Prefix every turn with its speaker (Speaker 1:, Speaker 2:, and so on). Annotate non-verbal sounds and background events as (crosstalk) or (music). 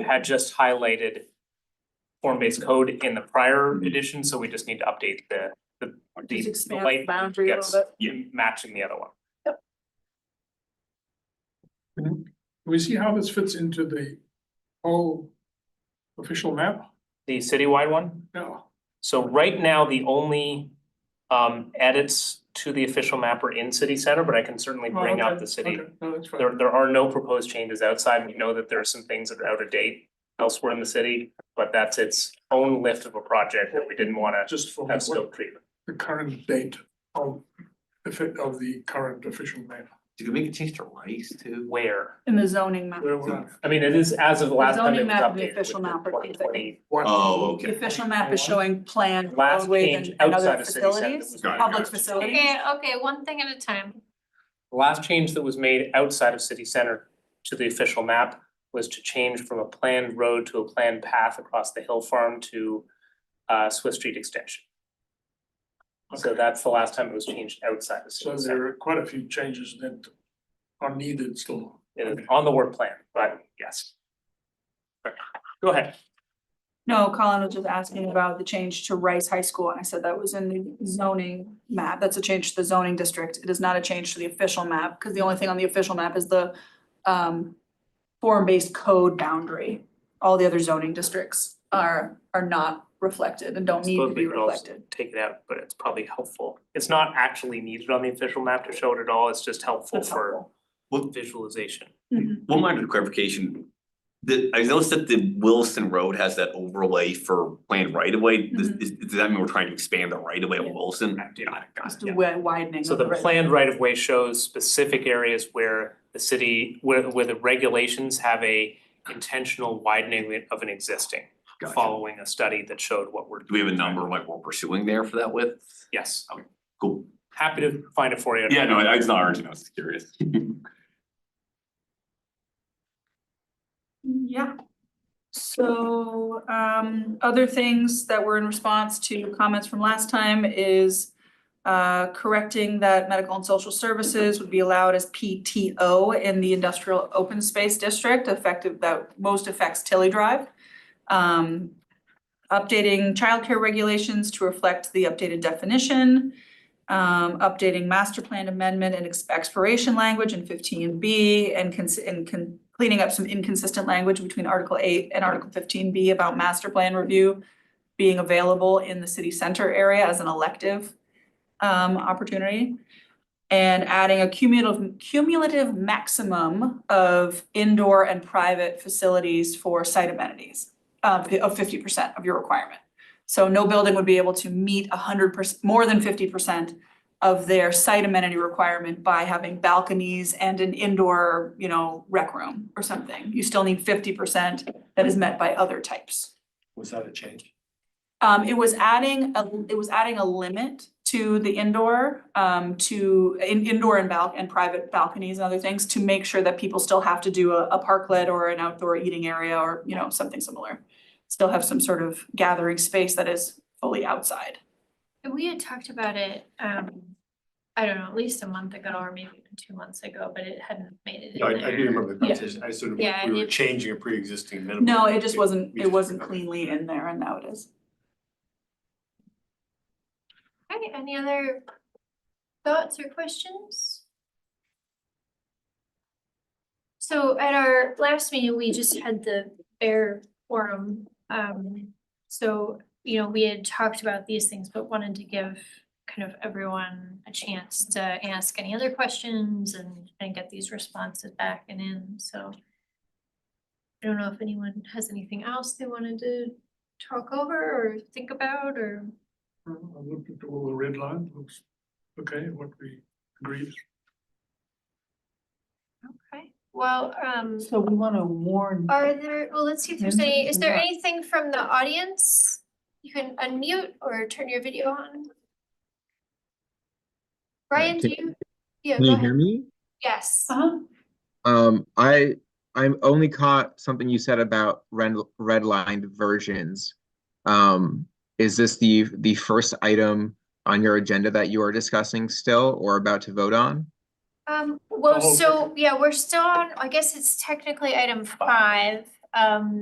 Speaker 1: had just highlighted form-based code in the prior edition, so we just need to update the, the,
Speaker 2: Just
Speaker 1: the- the
Speaker 2: expand the
Speaker 1: light
Speaker 2: boundary a
Speaker 1: gets
Speaker 2: little bit.
Speaker 1: matching the other one.
Speaker 3: Can we see how this fits into the whole official map?
Speaker 1: The citywide one,
Speaker 3: No,
Speaker 1: so right now, the only um edits to the official map are in city center, but I can certainly
Speaker 2: Oh,
Speaker 3: Well,
Speaker 1: bring up
Speaker 3: Oh, okay,
Speaker 1: the city.
Speaker 3: okay, no, that's fine.
Speaker 1: There there are no proposed changes outside. We know that there are some things that are out of date elsewhere in the city, but that's its own lift of a project that we didn't wanna
Speaker 3: Just for
Speaker 1: have
Speaker 3: what
Speaker 1: scope treatment.
Speaker 3: the current date of the fit of the current official map.
Speaker 4: You can make a change to rice too.
Speaker 1: Where?
Speaker 2: in the zoning map,
Speaker 3: Where we're at.
Speaker 1: I mean, it is as of the last time
Speaker 2: zoning
Speaker 1: it was
Speaker 2: map and the
Speaker 1: updated.
Speaker 2: official map are
Speaker 1: Twenty twenty.
Speaker 3: What-
Speaker 4: Oh,
Speaker 2: the
Speaker 4: okay.
Speaker 2: official map is showing planned
Speaker 1: Last
Speaker 2: roadways
Speaker 1: change
Speaker 2: and- and
Speaker 1: outside
Speaker 2: other
Speaker 1: of city center
Speaker 2: facilities,
Speaker 1: was-
Speaker 4: Got it,
Speaker 2: public
Speaker 4: got it.
Speaker 2: facilities.
Speaker 5: Okay, okay, one thing at a time.
Speaker 1: The last change that was made outside of city center to the official map was to change from a planned road to a planned path across the hill farm to uh Swiss Street Extension. So that's the last time it was changed outside of
Speaker 3: So
Speaker 1: city center.
Speaker 3: there are quite a few changes that are needed still.
Speaker 1: It is on the work plan, but yes. Okay, Go ahead.
Speaker 2: No, Colin was just asking about the change to Rice High School, and I said that was in the zoning map, that's a change to the zoning district, it is not a change to the official map, because the only thing on the official map is the um form-based code boundary. All the other zoning districts are are not reflected and don't need to
Speaker 1: Suppose we
Speaker 2: be
Speaker 1: could also
Speaker 2: reflected.
Speaker 1: take it out, but it's probably helpful. It's not actually needed on the official map to show it at all. It's just helpful
Speaker 2: That's
Speaker 1: for
Speaker 2: helpful.
Speaker 4: Well,
Speaker 1: visualization.
Speaker 2: Mhm.
Speaker 4: one minor clarification. The, I noticed that the Williston Road has that overlay for planned right of way. Does,
Speaker 2: Mhm.
Speaker 4: is- does that mean we're trying to expand the right of way
Speaker 2: Yeah.
Speaker 4: on Williston?
Speaker 1: Right, yeah.
Speaker 4: Got it, got it,
Speaker 2: Just a
Speaker 4: yeah.
Speaker 2: wi- widening.
Speaker 1: So
Speaker 2: of
Speaker 1: the
Speaker 2: right-
Speaker 1: planned right of way shows specific areas where the city, where where the regulations have a intentional widening of an existing.
Speaker 4: Gotcha.
Speaker 1: Following a study that showed what we're.
Speaker 4: Do we have a number like we're pursuing there for that width?
Speaker 1: Yes,
Speaker 4: Cool.
Speaker 1: happy to find it for you.
Speaker 4: Yeah, no, I I was not urgent, I was just curious. (laughs)
Speaker 2: Yeah. So um other things that were in response to comments from last time is uh correcting that medical and social services would be allowed as PTO in the industrial open space district effective that most affects Tilly Drive. Um updating childcare regulations to reflect the updated definition. Um updating master plan amendment and ex- expiration language in fifteen B and cons- and con- cleaning up some inconsistent language between Article eight and Article fifteen B about master plan review being available in the city center area as an elective um opportunity. And adding a cumulative cumulative maximum of indoor and private facilities for site amenities uh, fi- of fifty percent of your requirement. So no building would be able to meet hundred percent, more than fifty percent of their site amenity requirement by having balconies and an indoor, you know, rec room or something. You still need fifty percent that is met by other types.
Speaker 6: Was that a change?
Speaker 2: Um, it was adding, a it was adding a limit to the indoor, um, to in indoor and balc- and private balconies and other things to make sure that people still have to do a, a parklet or an outdoor eating area or, you know, something similar. Still have some sort of gathering space that is fully outside.
Speaker 5: We had talked about it, um, I don't know, at least a month ago or maybe even two months ago, but it hadn't made it
Speaker 6: No, I,
Speaker 5: in
Speaker 6: I do
Speaker 5: there.
Speaker 6: remember the conversation, I sort of,
Speaker 5: Yeah,
Speaker 6: we were
Speaker 5: it-
Speaker 6: changing a pre-existing minimum.
Speaker 2: No, it just wasn't,
Speaker 6: we
Speaker 2: it
Speaker 6: just
Speaker 2: wasn't
Speaker 6: forgot.
Speaker 2: cleanly in there and now it is.
Speaker 5: Okay, any other thoughts or questions? So at our last meeting, we just had the air forum, um, so, you know, we had talked about these things, but wanted to give kind of everyone a chance to ask any other questions and, and get these responses back and in, so. I don't know if anyone has anything else they wanted to talk over or think about or.
Speaker 3: I looked at all the red line, looks okay, what we agreed.
Speaker 5: Okay, well, um,
Speaker 7: So we wanna warn,
Speaker 5: are there, well, let's see if there's
Speaker 7: Maybe
Speaker 5: any,
Speaker 7: we
Speaker 5: is
Speaker 7: can
Speaker 5: there
Speaker 7: not.
Speaker 5: anything from the audience? You can unmute or turn your video on. Brian, do
Speaker 8: can-
Speaker 5: you? Yeah,
Speaker 8: Can
Speaker 5: go
Speaker 8: you
Speaker 5: ahead.
Speaker 8: hear me?
Speaker 5: Yes,
Speaker 2: Uh-huh.
Speaker 8: Um, I, I only caught something you said about red, redlined versions. Um, is this the, the first item on your agenda that you are discussing still or about to vote on?
Speaker 5: um, well,
Speaker 3: Oh,
Speaker 5: so, yeah, we're still on, I guess it's technically item five, um.